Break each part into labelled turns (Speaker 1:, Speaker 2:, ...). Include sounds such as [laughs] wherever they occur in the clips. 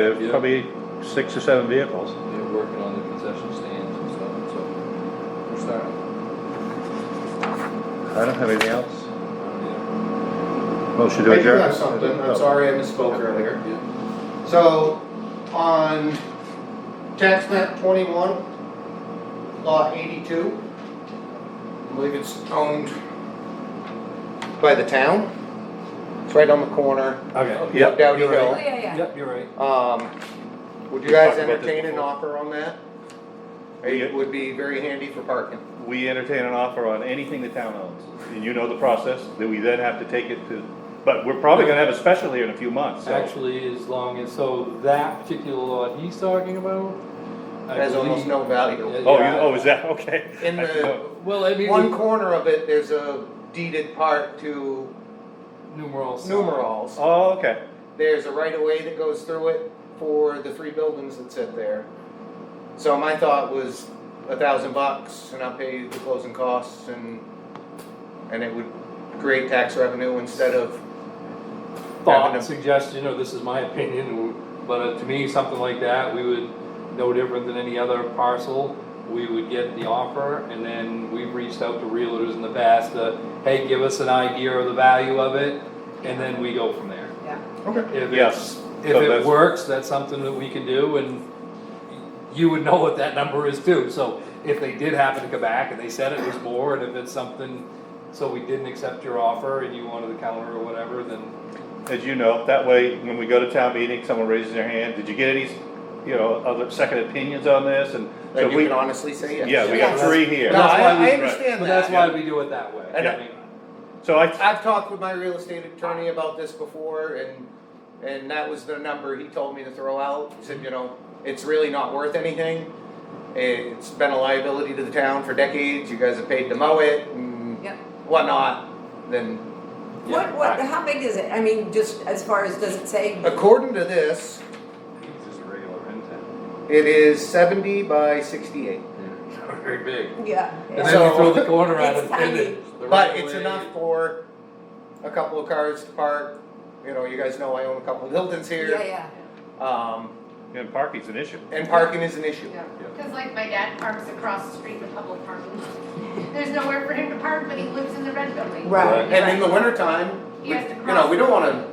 Speaker 1: Uh,
Speaker 2: Yeah.
Speaker 1: Probably six or seven vehicles.
Speaker 2: They're working on the concession stands and stuff, so we're starting.
Speaker 1: I don't have anything else.
Speaker 2: Yeah.
Speaker 1: Motion to
Speaker 3: I do
Speaker 1: adjourn.
Speaker 3: have something,
Speaker 1: Oh.
Speaker 3: I'm sorry I misspoke earlier.
Speaker 2: Yeah.
Speaker 3: So, on tax map twenty-one, lot eighty-two, I believe it's owned by the town. It's right on the corner,
Speaker 4: Okay.
Speaker 1: Yep.
Speaker 3: Dowdy
Speaker 4: you're right.
Speaker 3: Hill.
Speaker 5: Oh, yeah, yeah.
Speaker 4: Yep, you're right.
Speaker 3: Um, would you
Speaker 1: We talked
Speaker 3: guys
Speaker 1: about this
Speaker 3: entertain an
Speaker 1: before.
Speaker 3: offer on that?
Speaker 1: We-
Speaker 3: It would be very handy for parking.
Speaker 1: We entertain an offer on anything the town owns, and you know the process, that we then have to take it to, but we're probably gonna have a special here in a few months, so.
Speaker 4: Actually, as long as, so that particular lot he's talking about. I
Speaker 3: Has almost
Speaker 4: believe-
Speaker 3: no value.
Speaker 4: Yeah,
Speaker 1: Oh, you,
Speaker 4: yeah.
Speaker 1: oh, is that, [laughs] okay.
Speaker 3: In
Speaker 1: I didn't know.
Speaker 3: the,
Speaker 4: Well, I mean.
Speaker 3: one corner of it, there's a deeded part to
Speaker 4: Numerals.
Speaker 3: numerals.
Speaker 1: Oh, okay,
Speaker 3: There's a right of way that goes through it for the three buildings that sit there. So my thought was a thousand bucks and I'll pay the closing costs and, and it would create tax revenue instead of,
Speaker 4: Thought,
Speaker 3: Happened.
Speaker 4: suggestion, or this is my opinion, but uh, to me, something like that, we would, no different than any other parcel. We would get the offer and then we've reached out to realtors in the past to, hey, give us an idea of the value of it. And then we go from there. If
Speaker 1: Yes,
Speaker 4: it's, if
Speaker 1: so that's-
Speaker 4: it works, that's something that we can do and you would know what that number is too. So if they did happen to come back and they said it was more and if it's something, so we didn't accept your offer and you wanted to counter or whatever, then
Speaker 1: as you know, that way, when we go to town meeting, someone raises their hand, did you get any, you know, other second opinions on this, and. so
Speaker 3: and you
Speaker 1: we-
Speaker 3: can honestly say yes.
Speaker 1: Yeah, we got
Speaker 4: Yes.
Speaker 1: three here.
Speaker 3: No, I,
Speaker 4: That's why we-
Speaker 3: I understand
Speaker 4: But that's
Speaker 3: that.
Speaker 4: why we do it that way. I
Speaker 1: Yeah.
Speaker 4: mean,
Speaker 1: So I,
Speaker 3: I've talked with my real estate attorney about this before and, and that was the number he told me to throw out. He said, you know, it's really not worth anything. It's been a liability to the town for decades. You guys have paid to mow it and
Speaker 5: Yep.
Speaker 3: whatnot, then
Speaker 5: What, what, how big is it? I mean, just as far as, does it say?
Speaker 3: according to this,
Speaker 4: It's just a regular end town.
Speaker 3: it is seventy by sixty-eight.
Speaker 4: Not [laughs] very big.
Speaker 5: Yeah.
Speaker 4: And then
Speaker 5: yeah.
Speaker 4: you
Speaker 3: So-
Speaker 4: throw the corner at
Speaker 5: It's
Speaker 4: it. and
Speaker 5: tiny.
Speaker 4: it's the
Speaker 3: But
Speaker 4: right
Speaker 3: it's
Speaker 4: way.
Speaker 3: enough for a couple of cars to park. You know, you guys know I own a couple of Hilton's
Speaker 5: Yeah,
Speaker 3: here.
Speaker 5: yeah.
Speaker 3: Um,
Speaker 1: and parking's an issue.
Speaker 3: and parking is an issue.
Speaker 5: Yeah.
Speaker 6: Because like my dad parks across the street with public parking. There's nowhere for him to park, but he lives in the red building.
Speaker 5: Right,
Speaker 3: And in the
Speaker 5: right,
Speaker 3: wintertime, we-
Speaker 6: He has to
Speaker 3: you know, we
Speaker 6: cross.
Speaker 3: don't wanna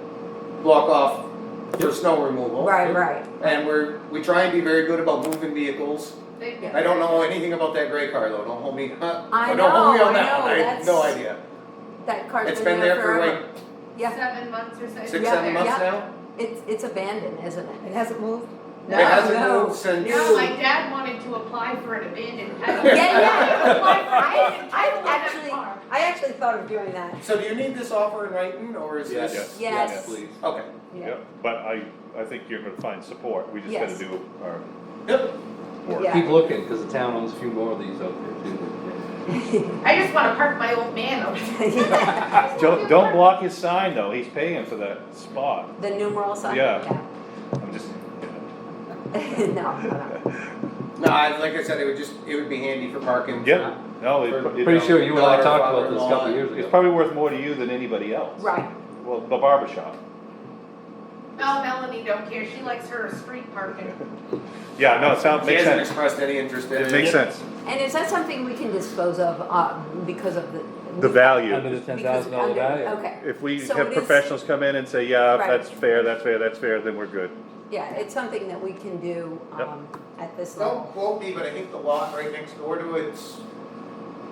Speaker 3: block off for snow removal.
Speaker 5: right, right.
Speaker 3: And we're, we try and be very good about moving vehicles.
Speaker 6: They-
Speaker 5: Yeah.
Speaker 3: I don't know anything about that gray car though, don't hold me, [laughs] huh?
Speaker 5: I
Speaker 3: Don't hold me
Speaker 5: know,
Speaker 3: on
Speaker 5: I
Speaker 3: that one,
Speaker 5: know,
Speaker 3: I have no
Speaker 5: that's-
Speaker 3: idea.
Speaker 5: That car's
Speaker 3: It's been there for like
Speaker 5: forever. Yeah,
Speaker 6: Seven months or so.
Speaker 3: six,
Speaker 5: Yeah,
Speaker 3: seven months
Speaker 5: yeah.
Speaker 3: now?
Speaker 5: it's, it's abandoned, isn't it? It hasn't moved?
Speaker 3: It hasn't
Speaker 5: No.
Speaker 3: moved since.
Speaker 6: No, my dad wanted to apply for an abandoned title.
Speaker 5: Yeah, yeah.
Speaker 6: Apply for- [laughs]
Speaker 5: I,
Speaker 6: don't
Speaker 5: I
Speaker 6: want that
Speaker 5: actually,
Speaker 6: car.
Speaker 5: I actually thought of doing that.
Speaker 3: So do you need this offer in writing, or is
Speaker 4: Yes.
Speaker 3: this?
Speaker 5: Yes.
Speaker 4: Please.
Speaker 3: Okay,
Speaker 5: Yeah.
Speaker 1: Yep, but I, I think you're gonna find support, we just gotta
Speaker 5: Yes.
Speaker 1: do our
Speaker 3: yep,
Speaker 1: work.
Speaker 5: Yeah.
Speaker 4: Keep looking, because the town owns a few more of these out there too.
Speaker 5: [laughs]
Speaker 6: I just wanna park my old man over there.
Speaker 1: Don't, don't block his sign though, he's paying for that spot,
Speaker 5: The numeral sign?
Speaker 1: Yeah.
Speaker 5: Yeah.
Speaker 1: I'm just,
Speaker 5: [laughs] No, no, no.
Speaker 3: no, I, like I said, it would just, it would be handy for parking.
Speaker 1: yep, no, it- it,
Speaker 4: Pretty sure you and I
Speaker 3: daughter,
Speaker 4: talked about this a couple
Speaker 3: father-in-law,
Speaker 4: years
Speaker 1: it's
Speaker 4: ago.
Speaker 1: probably worth more to you than anybody else.
Speaker 5: Right,
Speaker 1: Well, the barber shop.
Speaker 6: No, Melanie don't care, she likes her street parking.
Speaker 1: Yeah, no, it sounds,
Speaker 3: He
Speaker 1: makes
Speaker 3: hasn't
Speaker 1: sense.
Speaker 3: expressed any interest in it.
Speaker 1: It makes sense.
Speaker 5: and is that something we can dispose of, uh, because of the?
Speaker 1: The
Speaker 4: Under
Speaker 1: value,
Speaker 4: the ten
Speaker 5: because-
Speaker 4: thousand dollar
Speaker 5: under-
Speaker 4: value.
Speaker 5: Okay.
Speaker 1: if we
Speaker 5: So
Speaker 1: have
Speaker 5: it is-
Speaker 1: professionals come in and say, yeah,
Speaker 5: Right.
Speaker 1: that's fair, that's fair, that's fair, then we're good.
Speaker 5: Yeah, it's something that we can do, um, at this
Speaker 3: Don't
Speaker 5: level.
Speaker 3: quote me, but I think the lot right next door to it's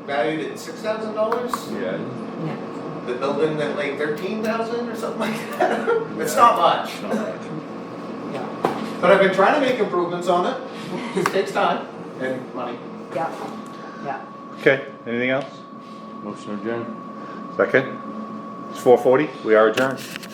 Speaker 3: valued at six thousand dollars.
Speaker 4: Yeah.
Speaker 5: Yeah.
Speaker 3: The building that like thirteen thousand or something like that. It's not much,
Speaker 5: Yeah.
Speaker 3: but I've been trying to make improvements on it. [laughs] It takes time and money.
Speaker 5: Yeah, yeah.
Speaker 1: Okay, anything else?
Speaker 4: Motion adjourned.
Speaker 1: Second? It's four forty, we are adjourned.